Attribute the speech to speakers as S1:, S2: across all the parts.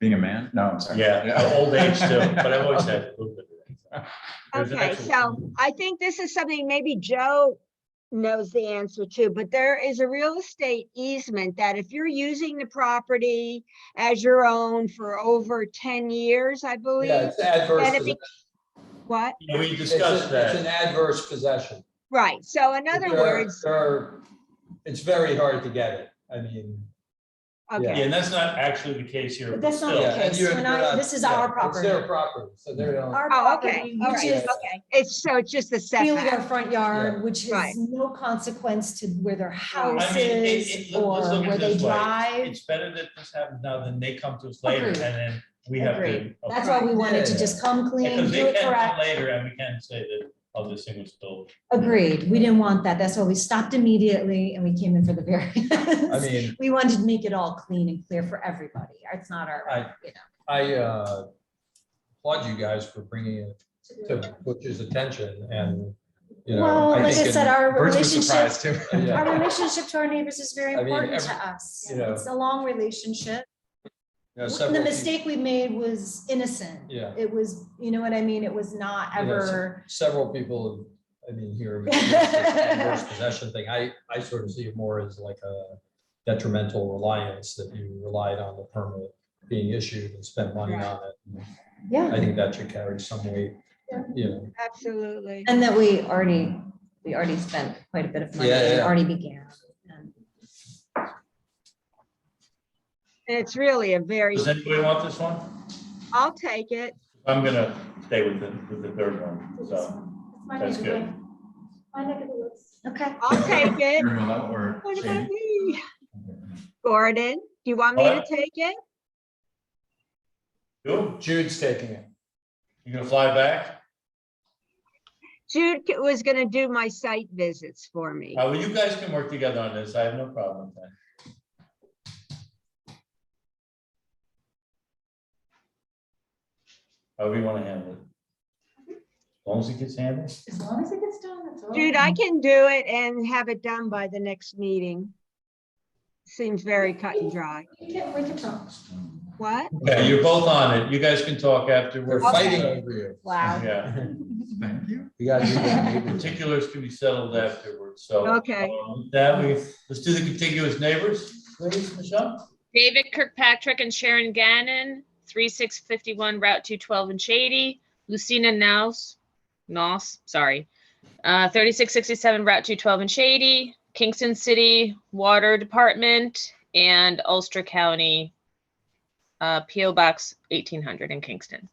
S1: Being a man? No, I'm sorry.
S2: Yeah, old age too, but I've always had. movement. There's an
S3: Okay,
S2: actual-
S3: so I think this is something maybe Joe knows the answer to, but there is a real estate easement that if you're using the property as your own for over ten years, I
S4: Yeah,
S3: believe,
S4: it's adverse.
S3: then it
S4: possession.
S3: be- what?
S2: Yeah, We
S4: It's a-
S2: discussed
S4: It's an
S2: that.
S4: adverse possession.
S3: Right, so in other
S4: There-
S3: words,
S4: there are- It's very hard to get it. I mean.
S2: Yeah,
S3: okay,
S2: and that's not actually the case here. but
S5: But that's not
S2: still.
S5: the
S4: yeah, and
S5: case.
S4: you're-
S5: We're not-
S4: you're
S5: this is our
S4: yeah, It's their
S5: property.
S4: property, so they don't.
S5: Our
S3: oh, okay,
S5: property,
S3: all
S5: which
S3: right,
S5: is
S3: okay, it's, so it's just the
S5: really
S3: setback.
S5: our front
S4: Yeah.
S5: yard, which
S3: Right.
S5: is no consequence to where their house
S2: I mean, it-
S5: is
S2: it- let-
S5: or
S2: let's look at
S5: where
S2: it
S5: they
S2: this way.
S5: drive.
S2: It's better that this happens now than they come to us later and
S5: Agreed.
S2: then we have to.
S3: Agreed.
S5: That's why we wanted to
S4: Yeah.
S5: just come clean,
S2: Because
S5: do
S2: they
S5: it
S2: can come
S5: correct.
S2: later and we can say that, oh, this thing was built.
S5: Agreed. We didn't want that. That's why we stopped immediately and we came in for the
S4: I
S5: variance.
S4: mean,
S5: We wanted to make it all clean and clear for everybody. It's not our,
S4: I-
S5: you
S4: I uh, applaud you guys for bringing it
S5: know.
S4: to Butch's attention and, you know.
S5: Well,
S4: I
S5: like I
S4: think
S5: said, our
S1: Birch was
S5: relationship
S1: surprised too.
S4: it- yeah.
S5: Our relationship to our neighbors is very
S4: I mean,
S5: important
S4: every-
S5: to us.
S4: you know.
S5: It's a long relationship.
S4: you know,
S5: The
S4: several peop-
S5: mistake we made was innocent.
S4: Yeah.
S5: It was, you know what I mean? It was not
S4: You know, s-
S5: ever,
S4: Several people, I mean, here, this adverse possession thing, I, I sort of see it more as like a detrimental reliance that you relied on the permit being issued and spent money on it.
S5: yeah.
S4: I think that should carry some weight, you know.
S3: Absolutely,
S5: And that we already, we already spent quite a bit of money.
S4: Yeah,
S5: It
S4: yeah.
S5: already began. Um, And
S3: and it's really a very,
S2: Does anybody want this one?
S3: I'll take it,
S2: I'm gonna stay with the, with the third one, so. That's good.
S5: Okay.
S3: I'll take it.
S1: You're in love or
S3: What about
S1: shady?
S3: me? Gordon, do you want me to
S2: What?
S3: take it?
S2: You,
S4: Jude's taking it.
S2: you gonna fly back?
S3: Jude c- was gonna do my site visits for me.
S2: Uh, well, you guys can work together on this. I have no problem with that. However you wanna handle it. As long as it gets handled.
S5: As long as it gets done, that's all.
S3: Jude, I can do it and have it done by the next meeting. Seems very cut and dry.
S5: We can, we can talk.
S3: What?
S2: Okay, you're both on it. You guys can talk
S4: They're
S2: afterwards.
S4: fighting over you.
S5: Wow.
S2: Yeah,
S1: Thank you.
S4: You gotta do that.
S2: particulars can be settled afterwards, so.
S3: Okay.
S2: um, That we, let's do the contiguous neighbors, please, Michelle.
S6: David Kirkpatrick and Sharon Gannon, 3651 Route 212 in Shady. Lucina Naus, Naus, sorry, uh, 3667 Route 212 in Shady. Kingston City Water Department and Ulster County uh, PO Box 1800 in Kingston.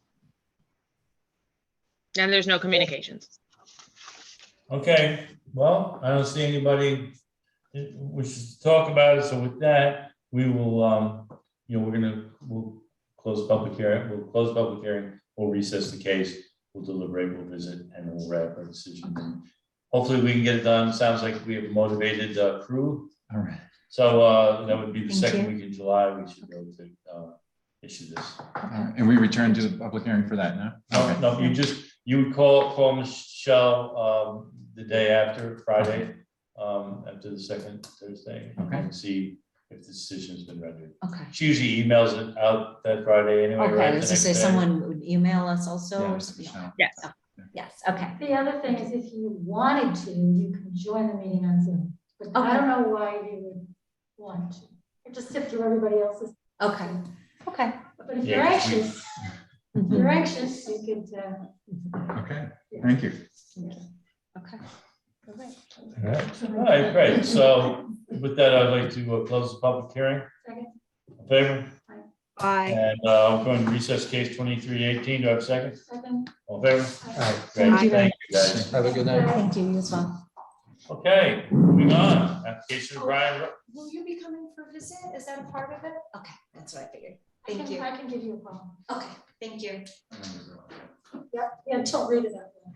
S6: And there's no communications.
S2: Okay, well, I don't see anybody wishes to talk about it, so with that, we will, um, you know, we're gonna, we'll close public hearing, we'll close public hearing, we'll recess the case, we'll deliberate, we'll visit, and we'll wrap our decision. Hopefully, we can get it done. Sounds like we have a motivated uh, crew.
S1: All right.
S2: So uh, that would be the
S5: Thank
S2: second
S5: you.
S2: week in July, we should be able to uh, issue this.
S1: All right. And we return to the public hearing for that now?
S2: No, no, you just, you would call, call Michelle um, the day after, Friday, um, after the second Thursday.
S1: Okay.
S2: And see if the decision's been rendered.
S5: Okay.
S2: She usually emails it out that Friday anyway,
S5: Okay,
S2: right?
S5: I
S2: the
S5: was gonna
S2: next
S5: say
S2: day.
S5: someone would email us also
S1: Yeah,
S5: or something.
S1: so,
S6: Yes.
S5: Yes, okay.
S7: The other thing is if you wanted to, you could join the meeting on Zoom, but I don't know why you would want to. It just sift through everybody else's,
S5: Okay, okay. Mm-hmm.
S7: but if
S2: Yeah,
S7: you're
S2: 'cause we-
S7: anxious, if you're anxious, you could, uh,
S1: Okay, thank you.
S5: Okay.
S2: All right, great. So with that, I'd like to uh, close the public hearing.
S7: Second.
S2: In Favor?
S3: Bye.
S2: And uh, I'm going to recess case 2318. Do I have a second?
S7: second.
S2: All in favor?
S4: All right,
S2: Great,
S3: Aye.
S2: thank you, guys.
S4: have a good night.
S5: Thank you, you as well.
S2: Okay, moving on. Application of Brian, Ro-
S5: Will you be coming for a visit? Is that a part of it? Okay, that's what I figured.
S7: I
S5: Thank
S7: can-
S5: you.
S7: I can give you a call.
S5: Okay, thank you.
S7: Yep, yeah, don't read it out. loud.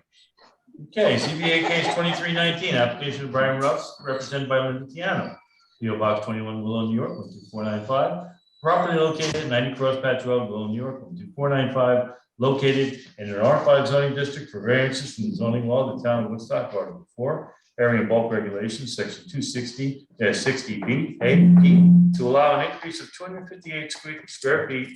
S2: okay, CBA case 2319, application of Brian Ruffs, represented by Linda Tiano. PO Box 21, Willow, New York, 12495. Property located at 90 Cross Patch Road, Willow, New York, 12495, located in an R5 zoning district for variances from the zoning law of the town of Woodstock, Article 4, area and bulk regulations, section 260, 60B, 8E, to allow an increase of 258 square- square feet